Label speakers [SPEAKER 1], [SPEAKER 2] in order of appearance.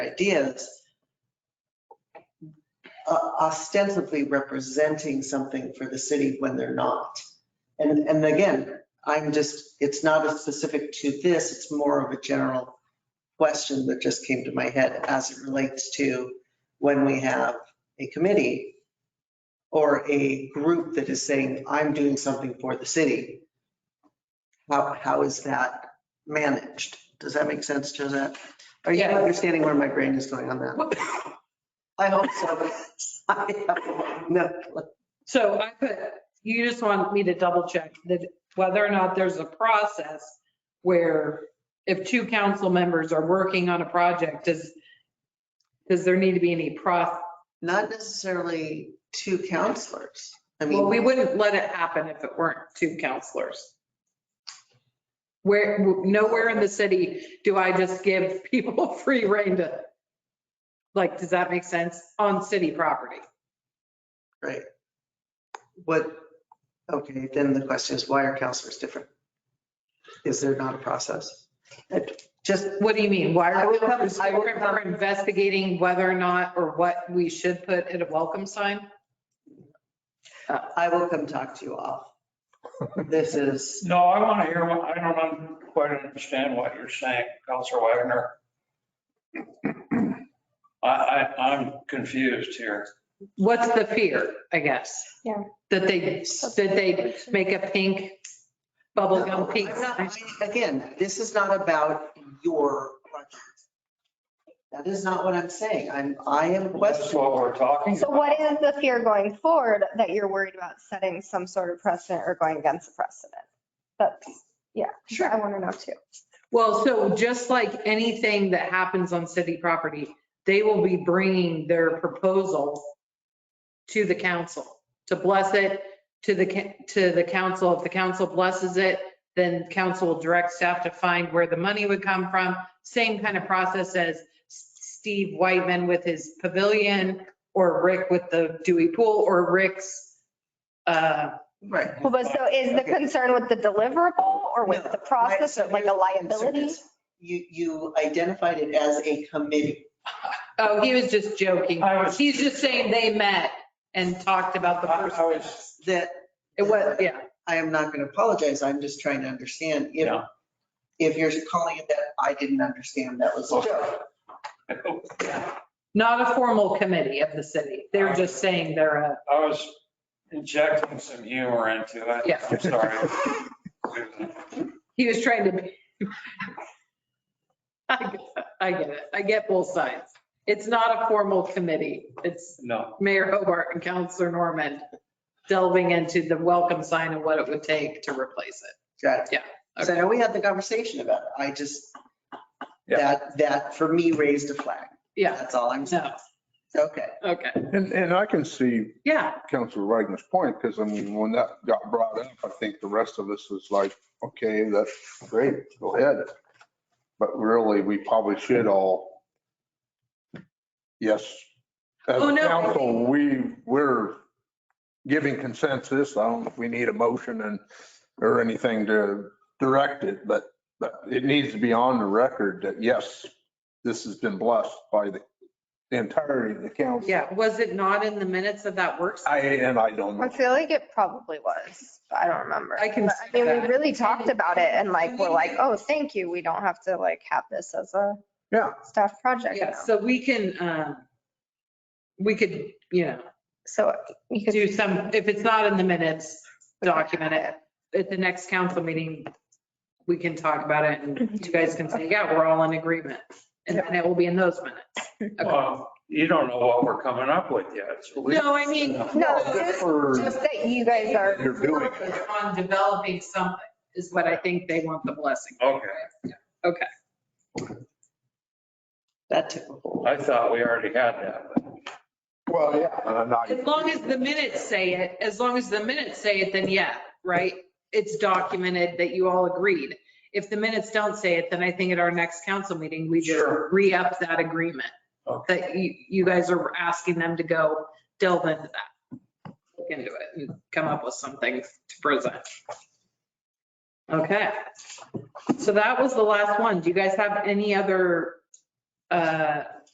[SPEAKER 1] ideas o- ostensibly representing something for the city when they're not. And, and again, I'm just, it's not as specific to this, it's more of a general question that just came to my head as it relates to when we have a committee or a group that is saying, I'm doing something for the city. How, how is that managed? Does that make sense, Josette? Are you
[SPEAKER 2] Yeah.
[SPEAKER 1] understanding where my brain is going on that? I hope so. I have No, clue.
[SPEAKER 2] So I put, you just want me to double check that whether or not there's a process where if two council members are working on a project, does, does there need to be any process?
[SPEAKER 1] not necessarily two counselors. I
[SPEAKER 2] Well, we
[SPEAKER 1] mean,
[SPEAKER 2] wouldn't let it happen if it weren't two counselors. Where, nowhere in the city do I just give people free rein to, like, does that make sense? On city property.
[SPEAKER 1] right. What, okay, then the question is, why are counselors different? Is there not a process? It- Just,
[SPEAKER 2] What do you mean? Why
[SPEAKER 1] I
[SPEAKER 2] are we
[SPEAKER 1] would come- I would
[SPEAKER 2] we're
[SPEAKER 1] come-
[SPEAKER 2] investigating whether or not, or what we should put in a welcome sign?
[SPEAKER 1] I will come talk to you all. This is,
[SPEAKER 3] No, I want to hear, what I don't un- quite understand what you're saying, Counselor Wagner. I, I, I'm confused here.
[SPEAKER 2] What's the fear, I guess?
[SPEAKER 4] Yeah.
[SPEAKER 2] That they, that they make a pink,
[SPEAKER 1] No,
[SPEAKER 2] bubblegum pink.
[SPEAKER 1] I'm not- I- again, this is not about your project. That is not what I'm saying. I'm, I am
[SPEAKER 3] That's
[SPEAKER 1] questioning.
[SPEAKER 3] what we're talking
[SPEAKER 4] So
[SPEAKER 3] about.
[SPEAKER 4] what is the fear going forward that you're worried about setting some sort of precedent or going against the precedent? That's, yeah, sure, I want to know too.
[SPEAKER 2] Well, so just like anything that happens on city property, they will be bringing their proposal to the council to bless it, to the, ca- to the council. If the council blesses it, then council will direct staff to find where the money would come from. Same kind of process as Steve Whiteman with his pavilion or Rick with the Dewey Pool or Rick's, uh,
[SPEAKER 1] Right.
[SPEAKER 4] Well, But so is the
[SPEAKER 1] Okay.
[SPEAKER 4] concern with the deliverable or with
[SPEAKER 1] No,
[SPEAKER 4] the process
[SPEAKER 1] my-
[SPEAKER 4] or like a liability?
[SPEAKER 1] You, you identified it as a committee.
[SPEAKER 2] Oh, he was just joking.
[SPEAKER 3] I was-
[SPEAKER 2] He's just saying they met and talked about the
[SPEAKER 3] I- I
[SPEAKER 2] first.
[SPEAKER 3] was-
[SPEAKER 2] steps.
[SPEAKER 1] That
[SPEAKER 2] It was, yeah.
[SPEAKER 1] I am not going to apologize. I'm just trying to understand if,
[SPEAKER 3] Yeah.
[SPEAKER 1] if you're calling it that, I didn't understand. That was a joke.
[SPEAKER 2] Not a formal committee of the city. They're just saying they're a,
[SPEAKER 3] I was injecting some humor into it.
[SPEAKER 2] Yeah.
[SPEAKER 3] I'm sorry.
[SPEAKER 2] he was trying to be. I get- I get it. I get both sides. It's not a formal committee. It's
[SPEAKER 3] No,
[SPEAKER 2] Mayor Hobart and Counselor Norman delving into the welcome sign and what it would take to replace it.
[SPEAKER 1] Got it.
[SPEAKER 2] Yeah,
[SPEAKER 1] So now we had the conversation about it. I just,
[SPEAKER 3] Yeah.
[SPEAKER 1] that, that for me raised a flag.
[SPEAKER 2] Yeah,
[SPEAKER 1] That's all I'm saying.
[SPEAKER 2] no,
[SPEAKER 1] Okay.
[SPEAKER 2] okay.
[SPEAKER 5] And, and I can see
[SPEAKER 2] Yeah,
[SPEAKER 5] Counselor Wagner's point, because I mean, when that got brought up, I think the rest of us was like, okay, that's great, go ahead. But really, we probably should all, yes, as
[SPEAKER 2] Oh,
[SPEAKER 5] a
[SPEAKER 2] no.
[SPEAKER 5] council, we, we're giving consensus. I don't, know if we need a motion and, or anything to direct it, but, but it needs to be on the record that, yes, this has been blessed by the entirety of the council.
[SPEAKER 2] yeah. Was it not in the minutes of that work? session?
[SPEAKER 5] I, and I don't
[SPEAKER 4] I
[SPEAKER 5] know.
[SPEAKER 4] feel like it probably was, but I don't remember.
[SPEAKER 2] I can
[SPEAKER 4] But, I
[SPEAKER 2] see
[SPEAKER 4] mean,
[SPEAKER 2] that.
[SPEAKER 4] we really talked about it and like, we're like, oh, thank you. We don't have to like have this as a
[SPEAKER 5] Yeah.
[SPEAKER 4] staff project
[SPEAKER 2] Yeah,
[SPEAKER 4] now.
[SPEAKER 2] so we can, um, we could, you know,
[SPEAKER 4] So you could.
[SPEAKER 2] do some, if it's not in the minutes, document it. At the next council meeting, we can talk about it and you guys can say, yeah, we're all in agreement. And then it will be in those minutes.
[SPEAKER 3] well, you don't know what we're coming up with yet. so we-
[SPEAKER 2] No, I mean,
[SPEAKER 4] No,
[SPEAKER 5] Well,
[SPEAKER 4] just,
[SPEAKER 5] for-
[SPEAKER 4] just that you guys are
[SPEAKER 5] You're doing it.
[SPEAKER 2] on developing something is what I think they want the blessing.
[SPEAKER 3] Okay,
[SPEAKER 1] That took a hold.
[SPEAKER 3] I thought we already had that. but-
[SPEAKER 5] Well, yeah. uh, and I-
[SPEAKER 2] As long as the minutes say it, as long as the minutes say it, then yeah, right? It's documented that you all agreed. If the minutes don't say it, then I think at our next council meeting, we just
[SPEAKER 3] Sure.
[SPEAKER 2] re-up that agreement. That you, you guys are asking them to go delve into that. Look into it and come up with something to present. Okay. So that was the last one. Do you guys have any other uh,